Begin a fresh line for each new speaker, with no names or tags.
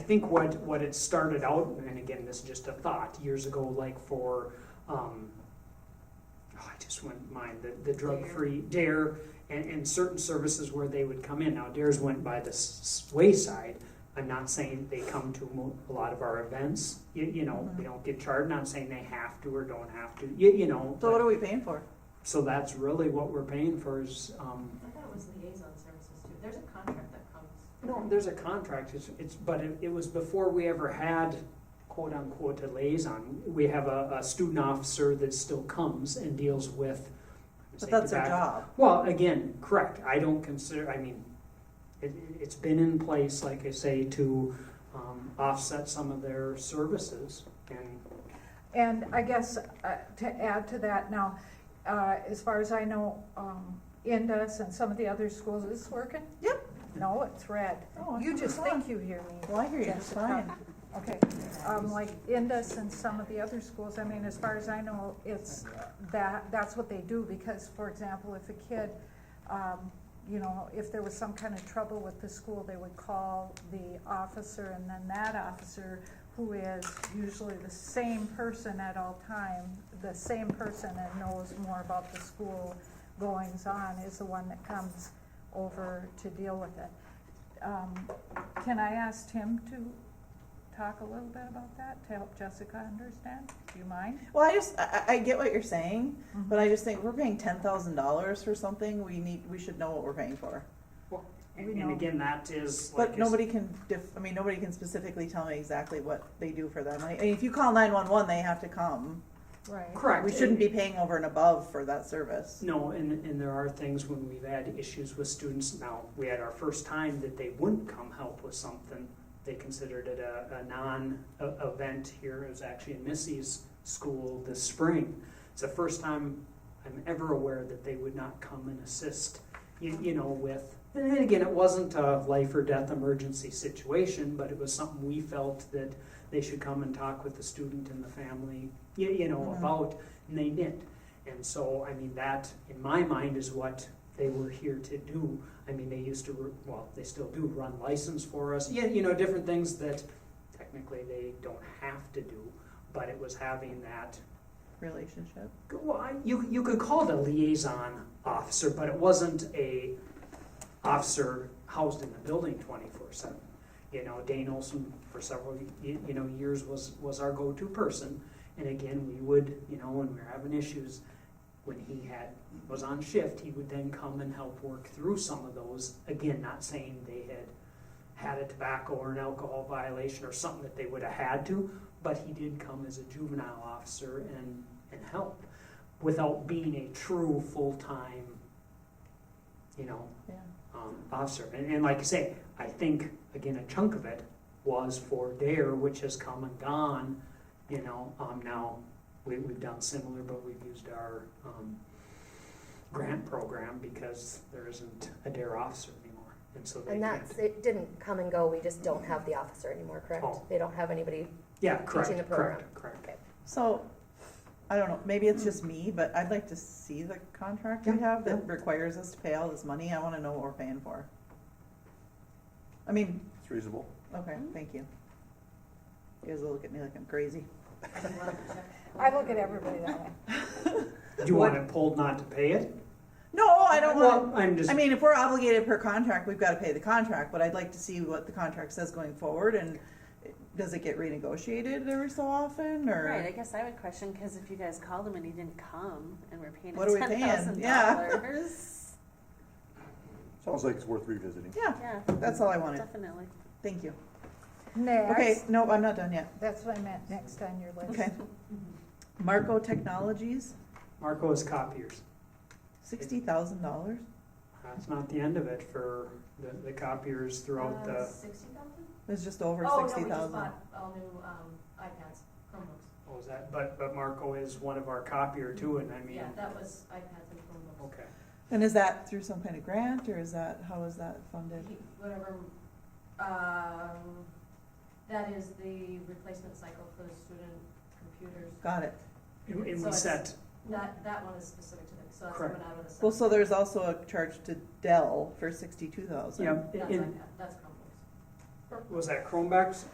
think what, what it started out, and again, this is just a thought, years ago, like for, um, oh, I just went, mine, the, the drug-free DARE and, and certain services where they would come in. Now, DARE's went by the s- s- wayside. I'm not saying they come to mo- a lot of our events, you, you know, they don't get charged, not saying they have to or don't have to, you, you know.
So
but-
what are we paying for?
so that's really what we're paying for is, um,
I thought it was liaison services too. There's a contract that comes.
no,
um,
there's a contract, it's, it's, but it, it was before we ever had quote unquote a liaison. We have a, a student officer that still comes and deals with.
But that's our job.
Well, again, correct, I don't consider, I mean, it, it's been in place, like I say, to, um, offset some of their services and
And I guess uh, to add to that now, uh, as far as I know, um, Indus and some of the other schools, is this working?
Yep.
No, it's red.
Oh,
You
it's
just
on.
think you hear me.
Well, I hear you, it's
Jessica.
fine.
Okay, um, like Indus and some of the other schools, I mean, as far as I know, it's that, that's what they do, because, for example, if a kid, um, you know, if there was some kind of trouble with the school, they would call the officer, and then that officer, who is usually the same person at all time, the same person and knows more about the school goings-on, is the one that comes over to deal with it. Um, can I ask Tim to talk a little bit about that to help Jessica understand? Do you mind?
Well, I just, I, I I get what you're saying, but I just think we're paying ten thousand dollars for something, we need, we should know what we're paying for.
We
And, and
know.
again, that is like. I
But
said-
nobody can def, I mean, nobody can specifically tell me exactly what they do for that money. I mean, if you call nine-one-one, they have to come.
Right.
Correct.
We shouldn't be paying over and above for that service.
No, and, and there are things when we've had issues with students, now, we had our first time that they wouldn't come help with something. They considered it a, a non-event here, it was actually in Missy's school this spring. It's the first time I'm ever aware that they would not come and assist, you, you know, with, and then again, it wasn't a life or death emergency situation, but it was something we felt that they should come and talk with the student and the family, you, you know,
Mhm.
about, and they did. And so, I mean, that, in my mind, is what they were here to do. I mean, they used to, ru- well, they still do run license for us, yeah, you know, different things that technically they don't have to do, but it was having that,
Relationship.
well, I- you, you could call it a liaison officer, but it wasn't a officer housed in the building twenty-four seven. You know, Dane Olson for several, y- y- you know, years was, was our go-to person. And again, we would, you know, when we were having issues, when he had, was on shift, he would then come and help work through some of those. Again, not saying they had had a tobacco or an alcohol violation or something that they would have had to, but he did come as a juvenile officer and, and help without being a true full-time, you know,
Yeah.
um, officer. And, and like I say, I think, again, a chunk of it was for DARE, which has come and gone, you know, um, now, we, we've done similar, but we've used our, um, grant program because there isn't a DARE officer anymore, and so they
And
can't.
that's, it didn't come and go, we just don't have the officer anymore, correct?
Oh.
They don't have anybody,
Yeah, correct,
teaching the program.
correct, correct.
So, I don't know, maybe it's just me, but I'd like to see the contract we
Yeah,
have
yeah.
that requires us to pay all this money. I wanna know what we're paying for. I mean,
It's reasonable.
okay,
Mm-hmm.
thank you. You guys will look at me like I'm crazy.
I look at everybody that way.
Do you want it pulled not to pay it?
No, I don't
Well,
want,
I'm just,
I mean, if we're obligated per contract, we've gotta pay the contract, but I'd like to see what the contract says going forward and does it get renegotiated every so often
Right, I
or?
guess I would question, because if you guys called him and he didn't come, and we're paying
What are we
him
paying?
ten thousand
Yeah.
dollars.
Sounds like it's worth revisiting.
Yeah,
Yeah,
that's all I wanted.
definitely.
Thank you. Okay,
Next,
no, I'm not done yet.
that's what I meant, next on your list.
Okay.
Mm-hmm.
Marco Technologies,
Marco is copiers.
sixty thousand dollars.
That's not the end of it for the, the copiers throughout the,
Uh, Sixty thousand?
It's just over
Oh, no,
sixty
we just
thousand.
bought all new, um, iPads, Chromebooks.
what was that? But, but Marco is one of our copier too, and I mean,
Yeah, that was iPads and Chromebooks.
okay.
And is that through some kind of grant, or is that how is that funded?
He- Whatever, um, that is the replacement cycle for the student computers.
Got it.
And and
So
we
it's-
set,
That, that one is specific to them, so that's
Correct.
coming out of the.
Well, so there's also a charge to Dell for sixty-two thousand.
yeah,
That's
in-
iPad, that's Chromebooks.
was that Chromebacks?